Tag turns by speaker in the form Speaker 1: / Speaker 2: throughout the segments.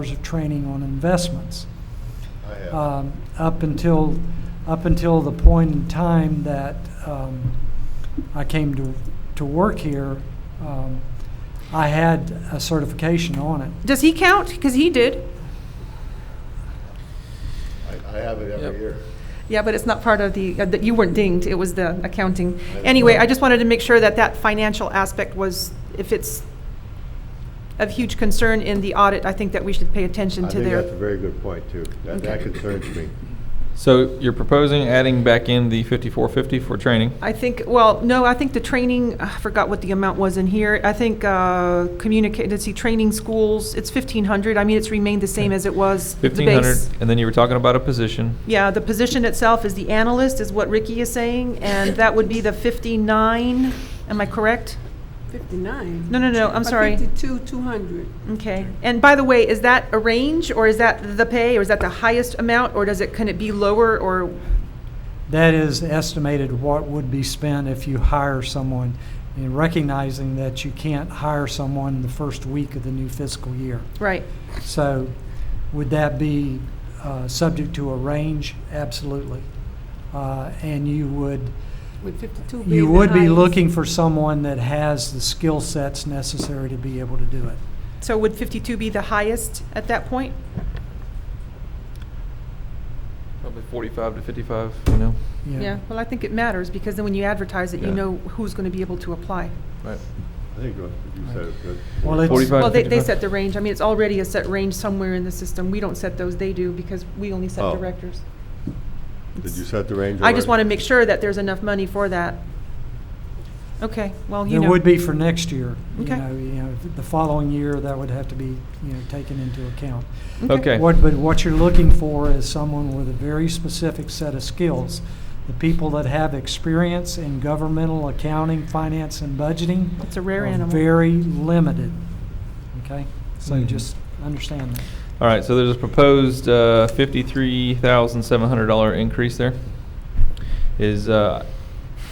Speaker 1: hours of training on investments.
Speaker 2: I
Speaker 3: Uh,
Speaker 2: have.
Speaker 1: um, up until, up until the point in time that um, I came to, to work here, um, I had a certification on it.
Speaker 3: Does he count? Because he did.
Speaker 2: I, I have it
Speaker 4: Yep.
Speaker 2: every year.
Speaker 3: Yeah, but it's not part of the, uh, that you weren't dinged, it was the accounting. Anyway, I just wanted to make sure that that financial aspect was, if it's of huge concern in the audit, I think that we should pay attention
Speaker 2: I
Speaker 3: to
Speaker 2: think that's a
Speaker 3: their,
Speaker 2: very good point, too. That, that concerns me.
Speaker 4: So you're proposing adding back in the fifty-four fifty for training?
Speaker 3: I think, well, no, I think the training, I forgot what the amount was in here. I think uh, communicate, let's see, training schools, it's 1,500. I mean, it's remained the same as it was. the
Speaker 4: Fifteen hundred,
Speaker 3: base.
Speaker 4: and then you were talking about a position.
Speaker 3: Yeah, the position itself is the analyst, is what Ricky is saying, and that would be the 59, am I correct?
Speaker 5: 59.
Speaker 3: No, no, no, I'm
Speaker 5: But
Speaker 3: sorry.
Speaker 5: 52, 200.
Speaker 3: Okay. And by the way, is that a range, or is that the pay, or is that the highest amount, or does it, can it be lower, or,
Speaker 1: That is estimated what would be spent if you hire someone, and recognizing that you can't hire someone the first week of the new fiscal year.
Speaker 3: right?
Speaker 1: So would that be uh, subject to a range? Absolutely. Uh, And you would,
Speaker 5: Would 52 be
Speaker 1: You
Speaker 5: the
Speaker 1: would be
Speaker 5: highest?
Speaker 1: looking for someone that has the skill sets necessary to be able to do it.
Speaker 3: So would 52 be the highest at that point?
Speaker 4: Probably forty-five to fifty-five, you know?
Speaker 1: you know.
Speaker 3: Yeah, well, I think it matters, because then when you advertise it, you
Speaker 4: Yeah.
Speaker 3: know who's going to be able to apply.
Speaker 4: Right.
Speaker 2: I think what you said is good.
Speaker 1: Well, it's,
Speaker 4: 45.
Speaker 3: Well, they, they
Speaker 4: 55.
Speaker 3: set the range, I mean, it's already a set range somewhere in the system, we don't set those, they do, because we only set
Speaker 2: Oh.
Speaker 3: directors.
Speaker 2: Did you set the range?
Speaker 3: I just want to
Speaker 2: already?
Speaker 3: make sure that there's enough money for that. Okay, well, you
Speaker 1: it
Speaker 3: know.
Speaker 1: would be for next year. You
Speaker 3: Okay.
Speaker 1: know, you know, the following year, that would have to be, you know, taken into account.
Speaker 4: Okay.
Speaker 1: What, but what you're looking for is someone with a very specific set of skills. The people that have experience in governmental accounting, finance, and budgeting
Speaker 3: It's a rare
Speaker 1: are
Speaker 3: animal.
Speaker 1: very limited, okay? So
Speaker 4: Mhm.
Speaker 1: just understand that.
Speaker 4: All right, so there's a proposed uh, $53,700 increase there. Is, uh,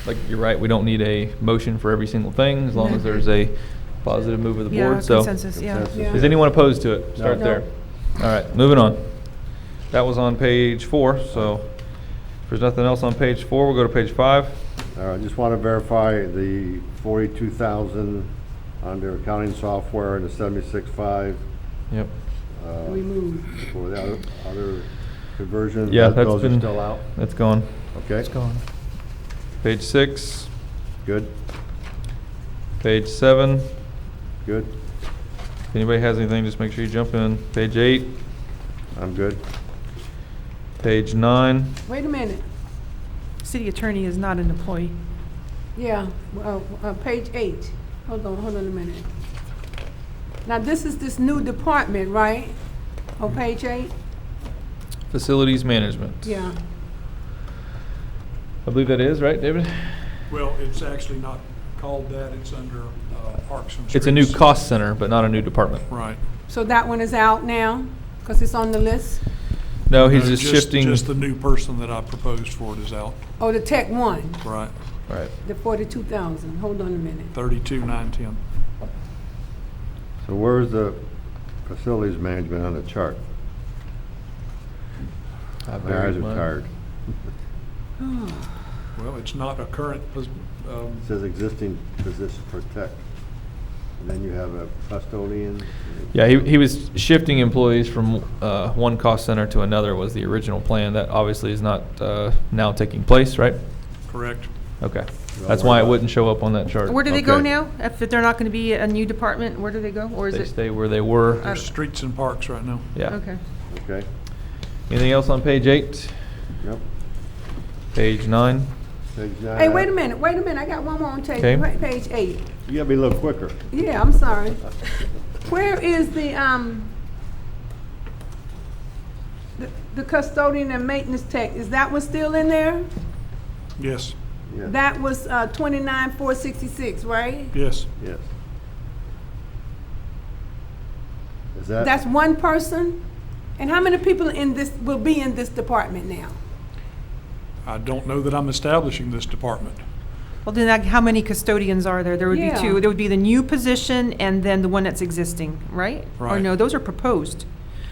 Speaker 4: like, you're right, we don't need a motion for every single thing, as long as there's a positive move of the
Speaker 3: Yeah,
Speaker 4: board, so.
Speaker 3: consensus, yeah.
Speaker 2: Consensus.
Speaker 4: Is anyone opposed to it? Start
Speaker 2: No.
Speaker 4: there. All right, moving on. That was on page four, so if there's nothing else on page four, we'll go to page five.
Speaker 2: All right, I just want to verify the forty-two thousand under accounting software and the seventy-six-five,
Speaker 4: Yep.
Speaker 2: uh,
Speaker 5: Remove.
Speaker 2: for the other, other conversion.
Speaker 4: Yeah,
Speaker 2: That-
Speaker 4: that's
Speaker 2: Those are
Speaker 4: been-
Speaker 2: still out,
Speaker 4: That's gone.
Speaker 2: okay?
Speaker 4: gone. Page six,
Speaker 2: Good,
Speaker 4: page seven,
Speaker 2: good,
Speaker 4: If anybody has anything, just make sure you jump in. Page eight,
Speaker 2: I'm good.
Speaker 4: page nine,
Speaker 5: Wait a minute.
Speaker 3: City attorney is not an employee.
Speaker 5: Yeah, uh, uh, page eight. Hold on, hold on a minute. Now, this is this new department, right? On page eight?
Speaker 4: facilities management.
Speaker 5: Yeah.
Speaker 4: I believe that is, right, David?
Speaker 6: Well, it's actually not called that, it's under uh, Parks and Streets.
Speaker 4: It's a new cost center, but not a new department.
Speaker 6: Right.
Speaker 5: So that one is out now, because it's on the list?
Speaker 4: No, he's
Speaker 6: No,
Speaker 4: just shifting.
Speaker 6: Uh, Just the new person that I proposed for it is out,
Speaker 5: Oh, the tech one,
Speaker 6: right,
Speaker 4: Right.
Speaker 5: the 42,000. Hold on a minute.
Speaker 6: thirty-two, nine, ten.
Speaker 2: So where's the facilities management on the chart? My eyes are tired.
Speaker 5: Oh.
Speaker 6: Well, it's not a current, pos- um,
Speaker 2: It says existing position for tech. And then you have a custodian.
Speaker 4: Yeah, he, he was shifting employees from, uh, one cost center to another was the original plan. That obviously is not, uh, now taking place, right?
Speaker 6: correct?
Speaker 4: Okay. That's why it wouldn't show up on that chart.
Speaker 3: Where do they go
Speaker 2: Okay.
Speaker 3: now? If they're not going to be a new department, where do they go, or is
Speaker 4: They
Speaker 3: it?
Speaker 4: stay where they were.
Speaker 3: Uh,
Speaker 6: There's streets and parks right now.
Speaker 4: Yeah.
Speaker 3: Okay.
Speaker 2: Okay,
Speaker 4: Anything else on page eight?
Speaker 2: yep.
Speaker 4: Page nine?
Speaker 2: Page nine.
Speaker 5: Hey, wait a minute, wait a minute. I got one more on page,
Speaker 4: Okay.
Speaker 5: pa- page eight.
Speaker 2: You gotta be a little quicker.
Speaker 5: Yeah, I'm sorry. Where is the, um, the- the custodian and maintenance tech, is that one still in there?
Speaker 6: Yes,
Speaker 2: Yeah,
Speaker 5: That was, uh, twenty-nine, four sixty-six, right?
Speaker 6: yes,
Speaker 2: Yes. Is that?
Speaker 5: That's one person? And how many people in this, will be in this department now?
Speaker 6: I don't know that I'm establishing this department.
Speaker 3: Well, then, like, how many custodians are there? There would be
Speaker 5: Yeah.
Speaker 3: two. There would be the new position and then the one that's existing, right? Or
Speaker 6: Right.
Speaker 3: no, those are proposed.